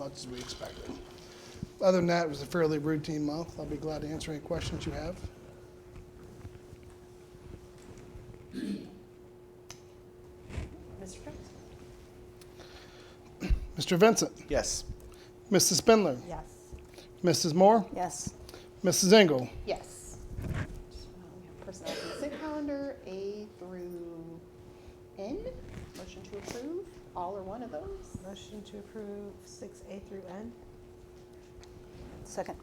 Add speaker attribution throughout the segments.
Speaker 1: much as we expected. Other than that, it was a fairly routine month. I'll be glad to answer any questions you have.
Speaker 2: Mr. Prince?
Speaker 1: Mr. Vincent,
Speaker 3: Yes.
Speaker 1: Mrs. Spindler,
Speaker 2: Yes.
Speaker 1: Mrs. Moore,
Speaker 4: Yes.
Speaker 1: Mrs. Engel.
Speaker 2: Yes. Just, um, we have Personnel consent calendar, A through N. Motion to approve, all or one of those.
Speaker 5: Motion to approve six A through N?
Speaker 4: Second.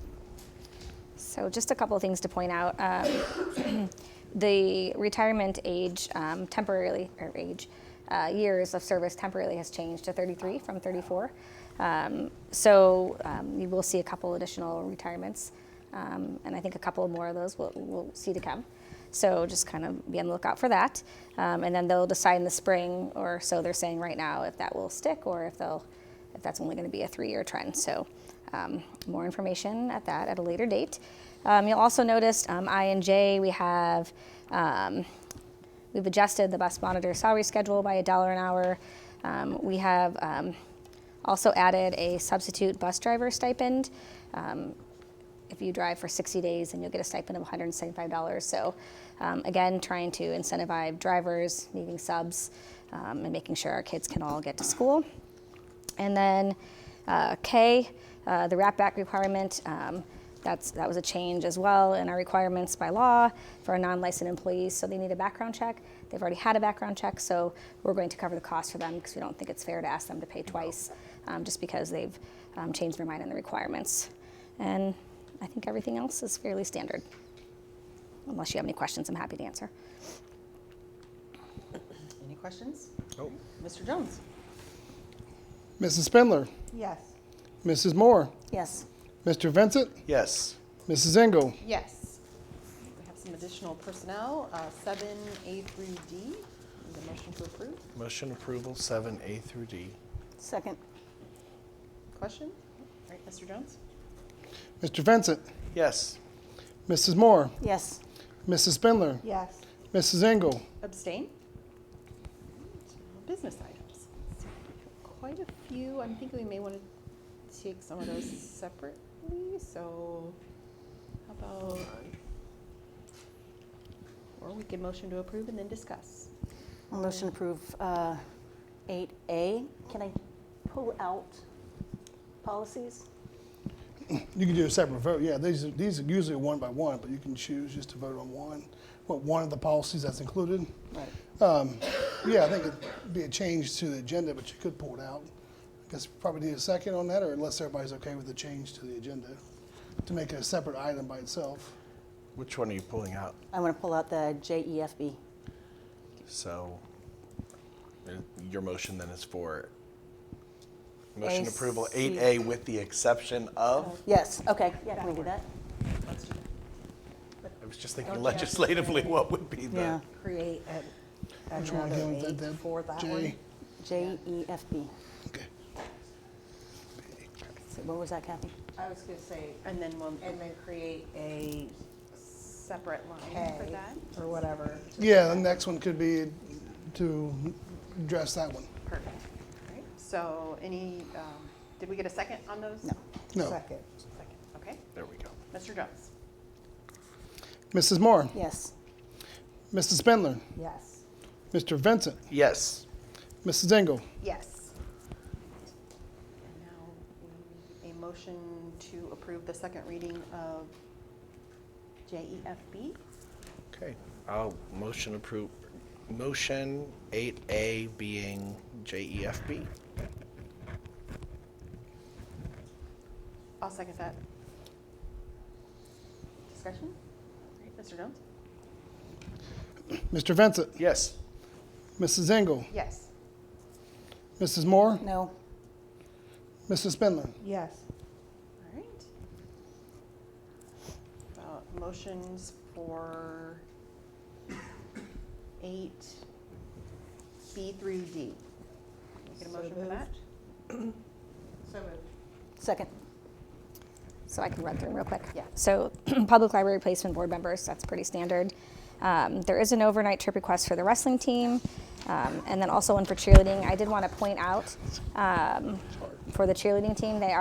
Speaker 6: So just a couple of things to point out. Um, The retirement age um, temporarily, or age, uh, years of service temporarily has changed to 33 from 34. Um, So um, you will see a couple additional retirements, um, and I think a couple more of those we'll- we'll see to come. So just kind of be on the lookout for that. Um, And then they'll decide in the spring, or so they're saying right now, if that will stick or if they'll if that's only going to be a three-year trend. So um, more information at that at a later date. Um, you'll also notice um, I and J we have um, we've adjusted the bus monitor salary schedule by a dollar an hour. Um, we have um, also added a substitute bus driver stipend. Um, if you drive for 60 days, then you'll get a stipend of $175. So, um, again, trying to incentivize drivers, needing subs, um, and making sure our kids can all get to school. And then uh, K, uh, the wrap back requirement, um, that's, that was a change as well in our requirements by law for our non-licensed employees. So they need a background check. They've already had a background check, so we're going to cover the cost for them because we don't think it's fair to ask them to pay twice um, just because they've um, changed their mind on the requirements. And I think everything else is fairly standard. Unless you have any questions, I'm happy to answer.
Speaker 2: Any questions?
Speaker 3: Nope.
Speaker 2: Mr. Jones?
Speaker 1: Mrs. Spindler,
Speaker 5: Yes.
Speaker 1: Mrs. Moore,
Speaker 4: Yes.
Speaker 1: Mr. Vincent,
Speaker 3: Yes.
Speaker 1: Mrs. Engel.
Speaker 2: Yes. We have some additional personnel, uh, seven, A through D. Need a motion to approve?
Speaker 3: Motion approval seven A through D.
Speaker 4: Second.
Speaker 2: Question? All right, Mr. Jones?
Speaker 1: Mr. Vincent,
Speaker 3: Yes.
Speaker 1: Mrs. Moore,
Speaker 4: Yes.
Speaker 1: Mrs. Spindler,
Speaker 5: Yes.
Speaker 1: Mrs. Engel.
Speaker 2: Abstain? Business items. Quite a few. I'm thinking we may want to take some of those separately, so how about? Or we can motion to approve and then discuss.
Speaker 4: Motion approve uh, eight A. Can I pull out policies?
Speaker 1: You can do a separate vote. Yeah, these are, these are usually one by one, but you can choose just to vote on one. What one of the policies that's included?
Speaker 4: Right.
Speaker 1: Um, yeah, I think it'd be a change to the agenda, but you could pull it out. I guess we probably need a second on that, or unless everybody's okay with the change to the agenda, to make it a separate item by itself.
Speaker 3: Which one are you pulling out?
Speaker 4: I want to pull out the E JEFB.
Speaker 3: So uh, your motion then is for motion
Speaker 4: A,
Speaker 3: approval
Speaker 4: C.
Speaker 3: eight A with the exception of?
Speaker 4: Yes, okay, yeah, can we do that?
Speaker 3: I was just thinking legislatively, what would be
Speaker 4: Yeah,
Speaker 3: the?
Speaker 5: Create an-
Speaker 1: Which one
Speaker 5: another
Speaker 1: again was
Speaker 5: eight
Speaker 1: that, Deb?
Speaker 5: for that
Speaker 1: J?
Speaker 5: one.
Speaker 4: E JEFB.
Speaker 1: Okay.
Speaker 4: So What was that, Kathy?
Speaker 5: I was gonna say,
Speaker 2: And then we'll
Speaker 5: and then create a
Speaker 2: separate line for
Speaker 5: K
Speaker 2: that.
Speaker 5: or whatever.
Speaker 1: Yeah, the next one could be to address that one.
Speaker 2: Perfect. All right. So any, um, did we get a second on those?
Speaker 4: No.
Speaker 1: No.
Speaker 5: Second.
Speaker 2: Second, okay.
Speaker 3: There we go.
Speaker 2: Mr. Jones?
Speaker 1: Mrs. Moore,
Speaker 4: Yes.
Speaker 1: Mrs. Spindler,
Speaker 5: Yes.
Speaker 1: Mr. Vincent,
Speaker 3: Yes.
Speaker 1: Mrs. Engel.
Speaker 2: Yes. And now we need a motion to approve the second reading of E JEFB.
Speaker 3: Okay. I'll motion approve, motion eight A being E JEFB.
Speaker 2: I'll second that. Discussion? All right, Mr. Jones?
Speaker 1: Mr. Vincent,
Speaker 3: Yes.
Speaker 1: Mrs. Engel,
Speaker 2: Yes.
Speaker 1: Mrs. Moore,
Speaker 4: No.
Speaker 1: Mrs. Spindler.
Speaker 5: Yes.
Speaker 2: All right. About motions for eight B through D. Get a
Speaker 5: So
Speaker 2: motion for that?
Speaker 5: moved. So moved.
Speaker 4: Second.
Speaker 6: So I can run through them real quick.
Speaker 2: Yeah.
Speaker 6: So public library placement board members, that's pretty standard. Um, there is an overnight trip request for the wrestling team, um, and then also one for cheerleading. I did want to point out um, for the cheerleading team, they are.